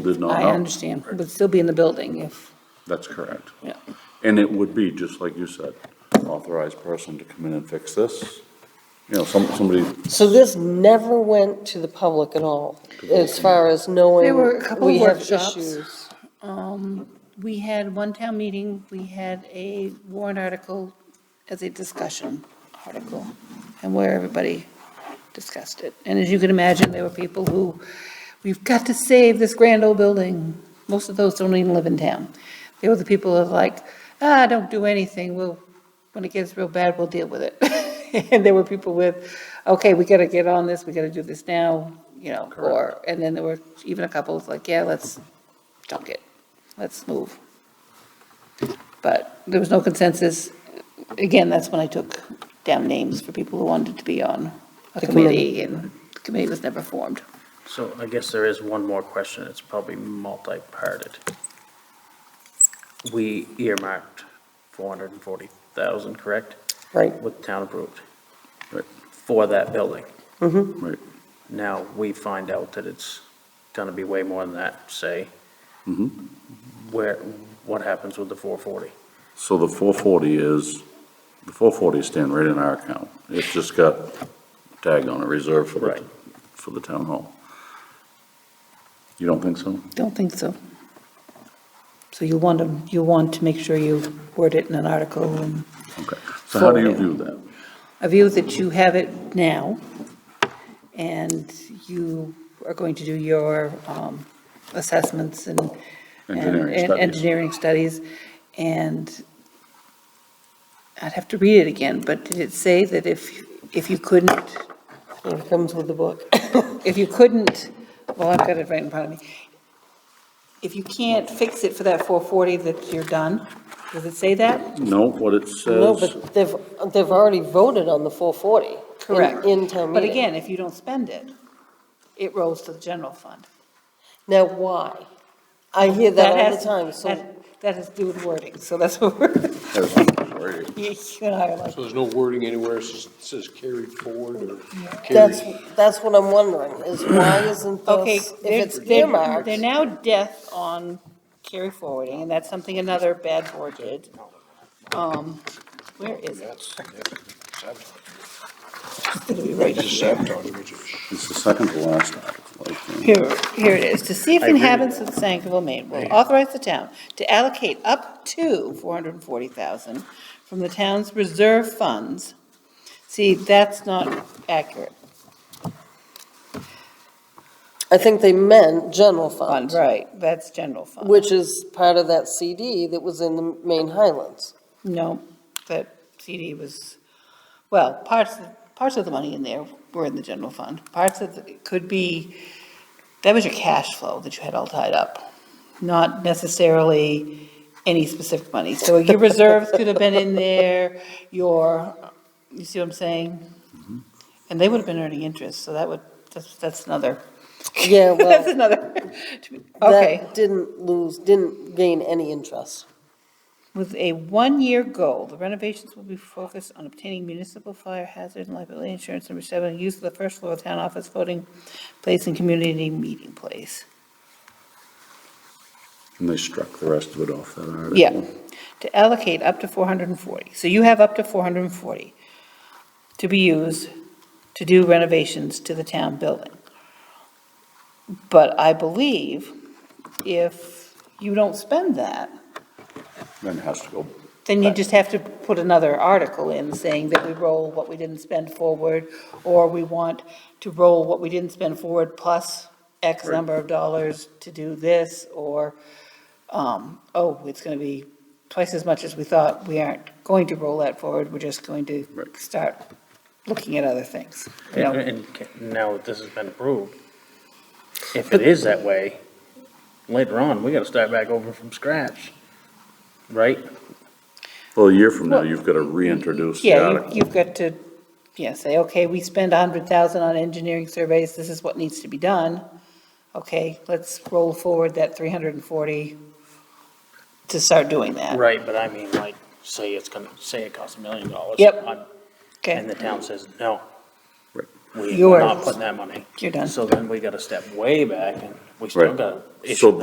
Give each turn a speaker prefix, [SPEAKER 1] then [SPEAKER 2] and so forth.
[SPEAKER 1] did not know.
[SPEAKER 2] I understand, would still be in the building if,
[SPEAKER 1] That's correct.
[SPEAKER 2] yeah.
[SPEAKER 1] And it would be, just like you said, authorized person to come in and fix this. You know, some, somebody,
[SPEAKER 3] So this never went to the public at all, as far as knowing.
[SPEAKER 2] There were a couple
[SPEAKER 3] we have
[SPEAKER 2] workshops.
[SPEAKER 3] issues.
[SPEAKER 2] Um, we had one town meeting, we had a warrant article as a discussion article, and where everybody discussed it. And as you can imagine, there were people who, we've got to save this grand old building. Most of those don't even live in town. There were the people who are like, ah, don't do anything, we'll, when it gets real bad, we'll deal with it. And there were people with, okay, we gotta get on this, we gotta do this now, you know, or, and then there were even a couple of like, yeah, let's junk it, let's move. But there was no consensus. Again, that's when I took down names for people who wanted to be on a
[SPEAKER 3] The
[SPEAKER 2] committee,
[SPEAKER 3] committee.
[SPEAKER 2] and the committee was never formed.
[SPEAKER 4] So I guess there is one more question, it's probably multi-parted. We earmarked four hundred and forty thousand, correct,
[SPEAKER 3] Right,
[SPEAKER 4] with town approved?
[SPEAKER 1] Right.
[SPEAKER 4] For that building.
[SPEAKER 3] mhm.
[SPEAKER 1] right,
[SPEAKER 4] Now, we find out that it's gonna be way more than that, say,
[SPEAKER 1] mhm.
[SPEAKER 4] where, what happens with the four forty?
[SPEAKER 1] So the four forty is, the four forty is staying right in our account. It's just got tag on it, reserved for the,
[SPEAKER 4] Right.
[SPEAKER 1] for the town hall. You don't think so?
[SPEAKER 2] Don't think so. So you want to, you want to make sure you word it in an article, and
[SPEAKER 1] Okay. So how do you
[SPEAKER 2] Forward.
[SPEAKER 1] view that?
[SPEAKER 2] a view that you have it now, and you are going to do your um, assessments and and-
[SPEAKER 1] Engineering
[SPEAKER 2] and
[SPEAKER 1] studies.
[SPEAKER 2] Engineering studies, and I'd have to read it again, but did it say that if, if you couldn't,
[SPEAKER 3] It comes with the book.
[SPEAKER 2] if you couldn't, well, I've got it right in front of me. If you can't fix it for that 440, that you're done? Does it say that?
[SPEAKER 1] No, what it
[SPEAKER 3] No,
[SPEAKER 1] says,
[SPEAKER 3] but they've, they've already voted on the 440. in- In town meeting.
[SPEAKER 2] But again, if you don't spend it, it rolls to the general fund.
[SPEAKER 3] Now, why? I hear that all the time, so.
[SPEAKER 2] That that has to do with wording, so that's what we're,
[SPEAKER 1] as I'm sorry,
[SPEAKER 2] you and I are like,
[SPEAKER 5] So there's no wording anywhere that says- says carried forward or carried?
[SPEAKER 3] That's, that's what I'm wondering, is why isn't
[SPEAKER 2] okay.
[SPEAKER 3] this, if
[SPEAKER 2] they're-
[SPEAKER 3] it's
[SPEAKER 2] they're-
[SPEAKER 3] earmarked,
[SPEAKER 2] They're now death on carry forwarding, and that's something another bad board did. Um, where is it?
[SPEAKER 5] That's, yeah,
[SPEAKER 2] It's gonna be right
[SPEAKER 5] just
[SPEAKER 2] here.
[SPEAKER 5] sabotage, which is.
[SPEAKER 1] it's the second to last article, I think.
[SPEAKER 2] Here, here it is. To see if
[SPEAKER 4] I read it.
[SPEAKER 2] inhabitants of Sangerville, Maine will authorize the town to allocate up to four hundred and forty thousand from the town's reserve funds. See, that's not accurate.
[SPEAKER 3] I think they meant general fund,
[SPEAKER 2] Fund, right, that's general fund.
[SPEAKER 3] which is part of that CD that was in the Main Highlands.
[SPEAKER 2] No, that CD was, well, parts, parts of the money in there were in the general fund. Parts of, the- it could be, that was your cash flow that you had all tied up, not necessarily any specific money. So your reserves could have been in there, your, you see what I'm saying? And they would have been earning interest, so that would, that's, that's another.
[SPEAKER 3] Yeah, well-
[SPEAKER 2] That's another, okay.
[SPEAKER 3] That didn't lose, didn't gain any interest.
[SPEAKER 2] With a one-year goal, the renovations will be focused on obtaining municipal fire hazard and liability insurance number seven, use of the first floor town office voting place and community meeting place.
[SPEAKER 1] And they struck the rest of it off that article.
[SPEAKER 2] Yeah, to allocate up to four hundred and forty. So you have up to four hundred and forty to be used to do renovations to the town building. But I believe if you don't spend that,
[SPEAKER 1] Then it has to go,
[SPEAKER 2] Then you just have to put another article in saying that we roll what we didn't spend forward, or we want to roll what we didn't spend forward plus X number of dollars to do this, or, um, oh, it's gonna be twice as much as we thought, we aren't going to roll that forward, we're just going to
[SPEAKER 1] Right.
[SPEAKER 2] start looking at other things. you know?
[SPEAKER 4] And, and ca- now that this has been approved, if it is that way, later on, we gotta start back over from scratch, right?
[SPEAKER 1] well, a year from now,
[SPEAKER 2] Well,
[SPEAKER 1] you've got to reintroduce the
[SPEAKER 2] Yeah,
[SPEAKER 1] article.
[SPEAKER 2] you- you've got to, yeah, say, okay, we spend a hundred thousand on engineering surveys, this is what needs to be done. Okay, let's roll forward that three hundred and forty to start doing that.
[SPEAKER 4] Right, but I mean, like, say it's gonna, say it costs a million dollars.
[SPEAKER 2] Yep.
[SPEAKER 4] I'm- And
[SPEAKER 2] Okay,
[SPEAKER 4] the town says, no, we- we're
[SPEAKER 2] Yours.
[SPEAKER 4] not putting that money.
[SPEAKER 2] You're done.
[SPEAKER 4] So then we gotta step way back and we still
[SPEAKER 1] Right.
[SPEAKER 4] gotta issue
[SPEAKER 1] So
[SPEAKER 4] that.